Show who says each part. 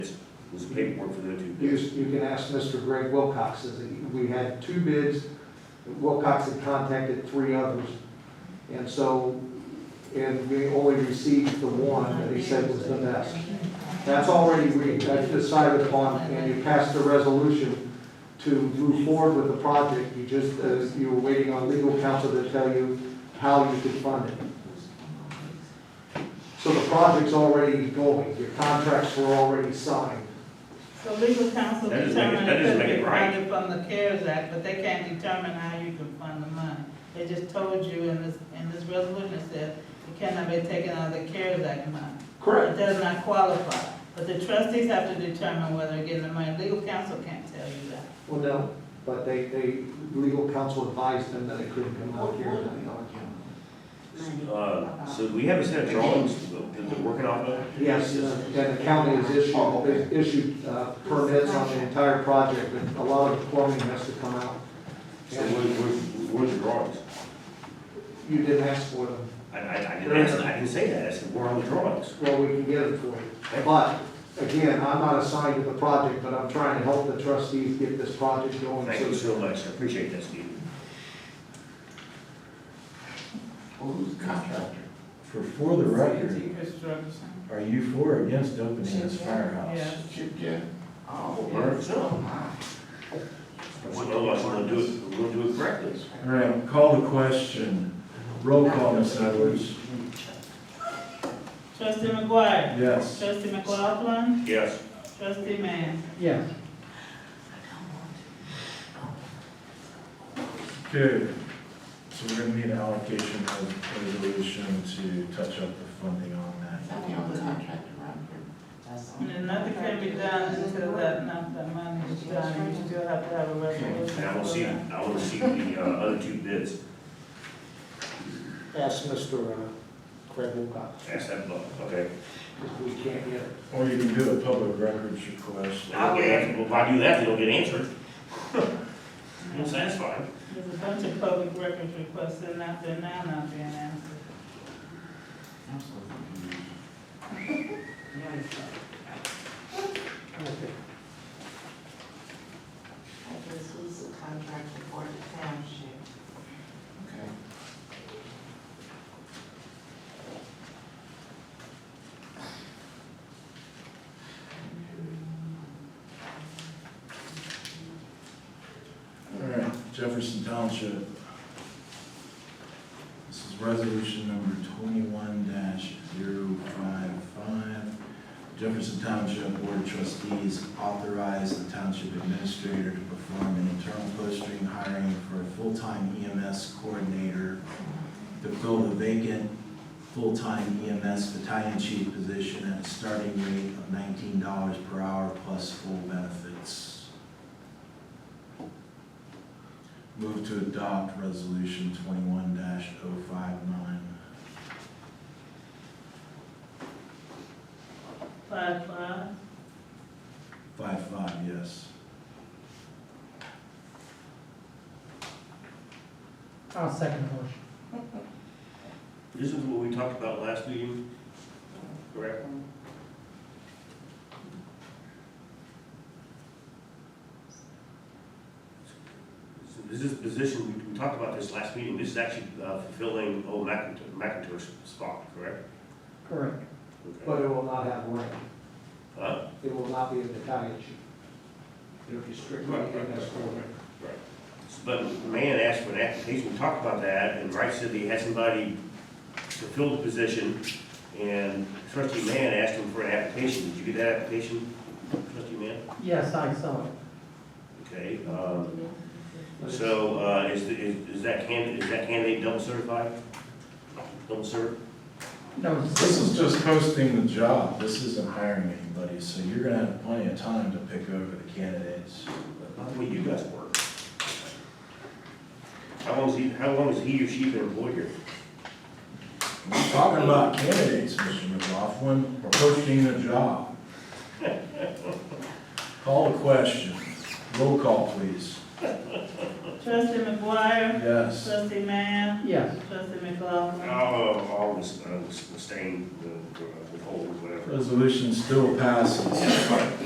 Speaker 1: This paperwork for the two
Speaker 2: You,
Speaker 1: bids.
Speaker 2: you can ask Mr. Greg Wilcox, is it- we had two bids, Wilcox had contacted three others. And so, and we only received the one that he said was the best. That's already re, that's decided upon, and you passed the resolution to move forward with the project. You just, uh, you were waiting on legal counsel to tell you how you could fund it. So the project's already going, your contracts were already signed.
Speaker 3: So legal counsel
Speaker 1: That doesn't make it-
Speaker 3: determined
Speaker 1: that
Speaker 3: it
Speaker 1: doesn't
Speaker 3: could
Speaker 1: make it
Speaker 3: be
Speaker 1: right.
Speaker 3: funded from the CARES Act, but they can't determine how you can fund the money. They just told you in this, in this resolution, it says it cannot be taken out of the CARES Act money. It does not qualify, but the trustees have to determine whether they're getting the money. Legal counsel can't tell you that.
Speaker 2: Well, no, but they, they, legal counsel advised them that it couldn't come out here.
Speaker 1: Uh, so do we have a set of drawings that they're working off of?
Speaker 2: Yes, and the county has
Speaker 1: Oh,
Speaker 2: issued, issued uh, permits on the entire project, and a lot of the plumbing has to come out.
Speaker 1: So what, what, where's the drawings?
Speaker 2: You didn't ask for them,
Speaker 1: I, I, I didn't ask, I didn't say that, I said, where are the drawings?
Speaker 2: well, we can get it for you. But, again, I'm not assigned to the project, but I'm trying to help the trustees get this project going.
Speaker 1: Thank you so much, I appreciate that, Steve.
Speaker 4: Who's the contractor? For, for the record,
Speaker 3: Reconstruction.
Speaker 4: are you for or against opening this firehouse?
Speaker 3: Yeah.
Speaker 5: Chip Gann.
Speaker 1: Oh, Merv, so. Well, otherwise we're gonna do it, we're gonna do it correctly.
Speaker 4: All right, call the question. Roll call, Ms. Edwards.
Speaker 3: Trustee McGuire.
Speaker 4: Yes.
Speaker 3: Trustee McLaughlin.
Speaker 1: Yes.
Speaker 3: Trustee Mann.
Speaker 2: Yeah.
Speaker 4: Good. So we're gonna need an allocation of resolution to touch up the funding on that.
Speaker 5: Not the only contractor around here.
Speaker 3: And then nothing can be done until that, not that money is done. You still have to have a resolution.
Speaker 1: And I will
Speaker 3: for
Speaker 1: see,
Speaker 3: that.
Speaker 1: I will see the, uh, other two bids,
Speaker 2: Ask Mr. uh, Craig Wilcox,
Speaker 1: ask that, block, okay?
Speaker 2: if we can't get it.
Speaker 4: Or you can do a public records request.
Speaker 1: I'll get answered, but if I do that, they don't get answered. I'm satisfied.
Speaker 3: There's a bunch of public records requests in out there now not being answered.
Speaker 5: I'm so confused.
Speaker 6: I just was a contractor for the township.
Speaker 5: Okay.
Speaker 4: All right, Jefferson Township. This is resolution number twenty-one 5 Jefferson Township Board of Trustees authorize the township administrator to perform an internal posting hiring for a full-time EMS coordinator to fill the vacant full-time EMS battalion chief position at a starting rate of nineteen dollars per hour plus full benefits. Move to adopt resolution twenty-one oh 59
Speaker 3: Five, five,
Speaker 4: Five five, yes.
Speaker 7: I'll second the motion.
Speaker 1: This is what we talked about last meeting, correct? So This is position, we- we talked about this last meeting, this is actually uh, fulfilling old McIntosh, McIntosh's spot, correct?
Speaker 7: Correct.
Speaker 1: Okay.
Speaker 2: But it will not have rank.
Speaker 1: Huh?
Speaker 2: It will not be a battalion chief. It'll be strictly
Speaker 1: Right, right, right,
Speaker 2: MS four.
Speaker 1: right, right. But the man asked for an application, we talked about that, and Wright said that he had somebody to fill the position, and trustee Mann asked him for an application, did you get that application, trustee Mann?
Speaker 7: Yes, I saw it.
Speaker 1: Okay, um, so, uh, is, the- is is that candidate, is that candidate double certified? Double cert?
Speaker 7: No,
Speaker 4: This is just posting the job, this isn't hiring anybody, so you're gonna have plenty of time to pick over the candidates.
Speaker 1: Not the way you guys work. How long is he, how long has he or she been employed here?
Speaker 4: We're talking about candidates, Mr. McLaughlin, we're posting the job. Call the question, roll call, please.
Speaker 3: trustee McGuire,
Speaker 4: Yes.
Speaker 3: trustee Mann,
Speaker 7: yes.
Speaker 3: trustee McLaughlin.
Speaker 1: I'll, I'll abstain, withhold, whatever.
Speaker 4: Resolution still passes.